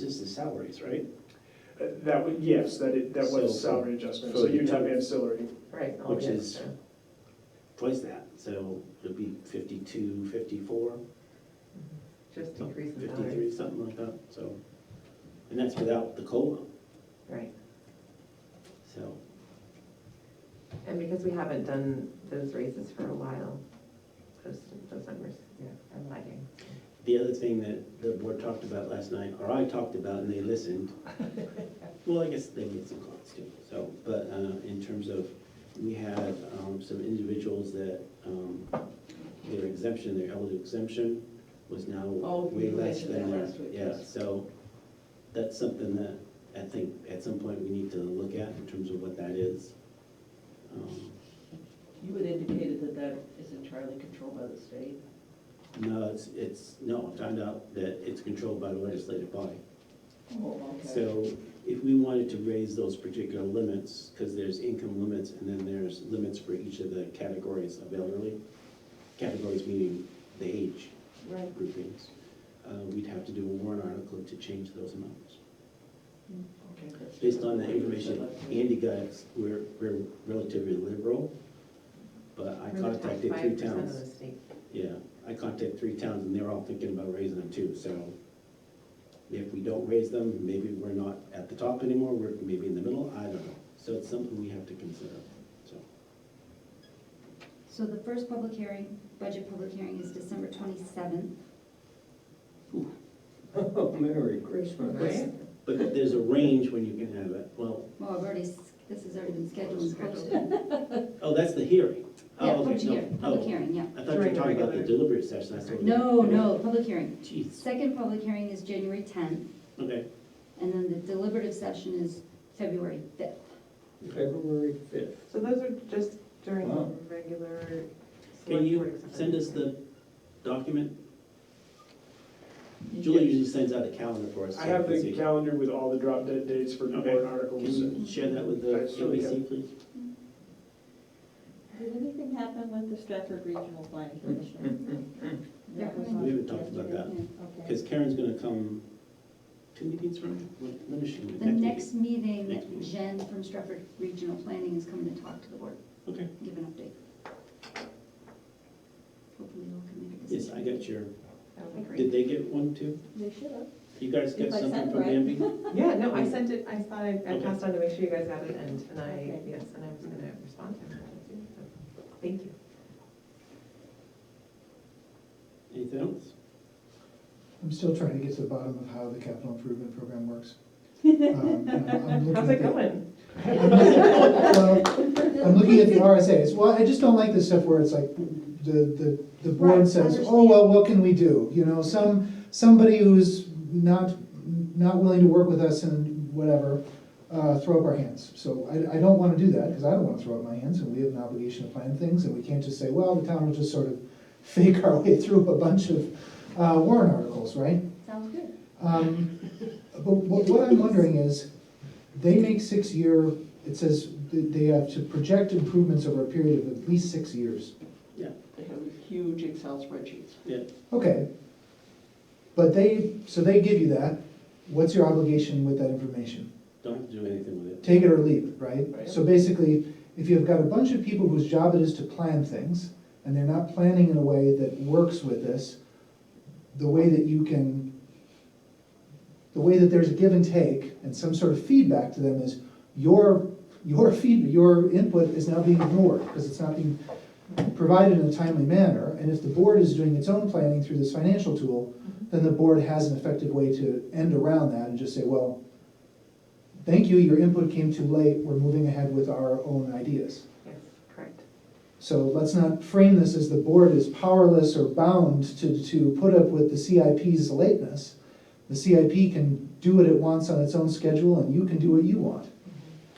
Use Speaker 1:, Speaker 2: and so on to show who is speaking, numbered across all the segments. Speaker 1: This is the salaries, right?
Speaker 2: Uh, That, wa- yes, that it, that was
Speaker 1: So-
Speaker 2: salary adjustment,
Speaker 1: so
Speaker 2: so you'd have
Speaker 1: you-
Speaker 2: ancillary.
Speaker 3: Right. all
Speaker 1: Which
Speaker 3: the
Speaker 1: is-
Speaker 3: extra.
Speaker 1: Twice that, so it'd be fifty-two, fifty-four,
Speaker 3: Just
Speaker 1: some-
Speaker 3: increase in salary,
Speaker 1: fifty-three, something like that, so. And that's without the COLA,
Speaker 3: right.
Speaker 1: so,
Speaker 3: And because we haven't done those raises for a while, those, those numbers yeah, are lagging.
Speaker 1: the other thing that the board talked about last night, or I talked about and they listened. Well, I guess they made some comments too, so, but, uh, in terms of, we had, um, some individuals that, um, their exemption, their elder exemption was now
Speaker 4: Oh,
Speaker 1: way
Speaker 4: you
Speaker 1: less
Speaker 4: mentioned
Speaker 1: than
Speaker 4: that
Speaker 1: that,
Speaker 4: last week,
Speaker 1: yeah,
Speaker 4: yes.
Speaker 1: so. That's something that I think at some point we need to look at in terms of what that is. Um,
Speaker 4: You had indicated that that is entirely controlled by the state.
Speaker 1: No, it's, it's, no, I found out that it's controlled by the legislative body.
Speaker 4: Oh,
Speaker 1: So if we wanted to raise those particular limits, because there's income limits and then there's limits for each of the categories of elderly, categories meaning the age
Speaker 4: Right.
Speaker 1: groupings, uh, we'd have to do a warrant article to change those amounts.
Speaker 4: Okay, that's-
Speaker 1: Based on the information Andy got, we're, we're relatively liberal, but I contacted three
Speaker 3: Five percent of the
Speaker 1: towns.
Speaker 3: state.
Speaker 1: Yeah, I contacted three towns and they're all thinking about raising them too, so if we don't raise them, maybe we're not at the top anymore, we're maybe in the middle, I don't know. So it's something we have to consider, so.
Speaker 5: So the first public hearing, budget public hearing is December twenty-seventh.
Speaker 6: Oh, Merry Christmas.
Speaker 3: Right?
Speaker 1: But there's a range when you can have it, well,
Speaker 5: Well, I've already, s- this has already been scheduled and posted.
Speaker 1: oh, that's the hearing. Oh,
Speaker 5: Yeah,
Speaker 1: okay,
Speaker 5: public
Speaker 1: no,
Speaker 5: hearing, public
Speaker 1: oh,
Speaker 5: hearing, yeah.
Speaker 1: I thought you were talking about the delivery session, I thought.
Speaker 5: No, no, public hearing.
Speaker 1: Jeez,
Speaker 5: Second public hearing is January tenth,
Speaker 1: okay,
Speaker 5: and then the deliberative session is February fifth.
Speaker 6: February fifth.
Speaker 3: So those are just during
Speaker 6: Wow.
Speaker 3: the regular.
Speaker 1: can
Speaker 3: select board
Speaker 1: you
Speaker 3: exam-
Speaker 1: send us the document? Julie
Speaker 2: Yes.
Speaker 1: usually sends out a calendar for us. so
Speaker 2: I have
Speaker 1: we can
Speaker 2: the
Speaker 1: see.
Speaker 2: calendar with all the drop dead dates for
Speaker 1: Okay.
Speaker 2: warrant articles.
Speaker 1: Can you share that with the
Speaker 2: Alright, so we
Speaker 1: ABC, please?
Speaker 7: Did anything happen with the Stratford Regional
Speaker 1: Mm,
Speaker 7: Planning Commission? That was on-
Speaker 1: We haven't talked about that,
Speaker 7: Okay.
Speaker 1: because Karen's gonna come two meetings from, when when is she? gonna-
Speaker 5: The next
Speaker 1: Next
Speaker 5: meeting,
Speaker 1: meeting.
Speaker 5: Jen from Stratford Regional Planning is coming to talk to the board,
Speaker 1: meeting?
Speaker 5: give an update. Hopefully we'll can make a
Speaker 1: Okay, yes, I
Speaker 5: decision.
Speaker 1: got your,
Speaker 3: That would be
Speaker 1: did
Speaker 3: great.
Speaker 1: they get one too?
Speaker 7: They should have.
Speaker 1: You guys get
Speaker 7: If I
Speaker 1: something
Speaker 7: sent
Speaker 1: from
Speaker 7: right.
Speaker 1: Bambi?
Speaker 3: Yeah, no, I sent it, I thought I, I
Speaker 1: Okay.
Speaker 3: passed on to make sure you guys got it and, and I,
Speaker 7: Okay.
Speaker 3: yes, and I was gonna respond to him. so, Thank you.
Speaker 1: Anything else?
Speaker 8: I'm still trying to get to the bottom of how the capital improvement program works. Um, and I'm- I'm
Speaker 3: How's
Speaker 8: looking
Speaker 3: it
Speaker 8: at the-
Speaker 3: going?
Speaker 8: I'm looking- well, I'm looking at the RSA's, well, I just don't like this stuff where it's like, the, the, the board
Speaker 5: Right,
Speaker 8: says, oh,
Speaker 5: understand.
Speaker 8: well, what can we do? You know, some, somebody who's not, not willing to work with us and whatever, uh, throw up our hands. So I, I don't wanna do that, cause I don't wanna throw up my hands, and we have an obligation to plan things, and we can't just say, well, the town will just sort of fake our way through a bunch of, uh, warrant articles, right?
Speaker 5: Sounds good.
Speaker 8: Um, But what what I'm wondering is, they make six-year, it says that they have to project improvements over a period of at least six years.
Speaker 4: They have huge Excel spreadsheets.
Speaker 8: Okay. But they, so they give you that, what's your obligation with that information?
Speaker 1: Don't have to do anything with it.
Speaker 8: Take it or leave it, right?
Speaker 4: Right.
Speaker 8: So basically, if you've got a bunch of people whose job it is to plan things, and they're not planning in a way that works with this, the way that you can, the way that there's a give and take and some sort of feedback to them is your, your feed, your input is now being ignored because it's not being provided in a timely manner. And if the board is doing its own planning through this financial tool, then the board has an effective way to end around that and just say, well, thank you, your input came too late, we're moving ahead with our own ideas.
Speaker 3: Yes, correct.
Speaker 8: So let's not frame this as the board is powerless or bound to, to put up with the CIP's lateness. The CIP can do what it wants on its own schedule, and you can do what you want.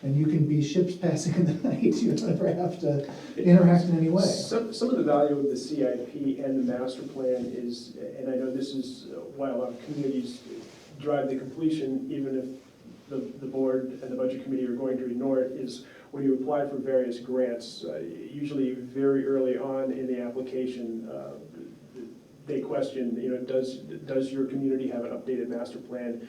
Speaker 8: And you can be ships passing in the night, you don't ever have to interact in any way.
Speaker 2: Some, some of the value of the CIP and the master plan is, and I know this is why a lot of communities drive the completion, even if the, the board and the budget committee are going to ignore it, is when you apply for various grants, uh, usually very early on in the application, uh, they question, you know, does, does your community have an updated master plan?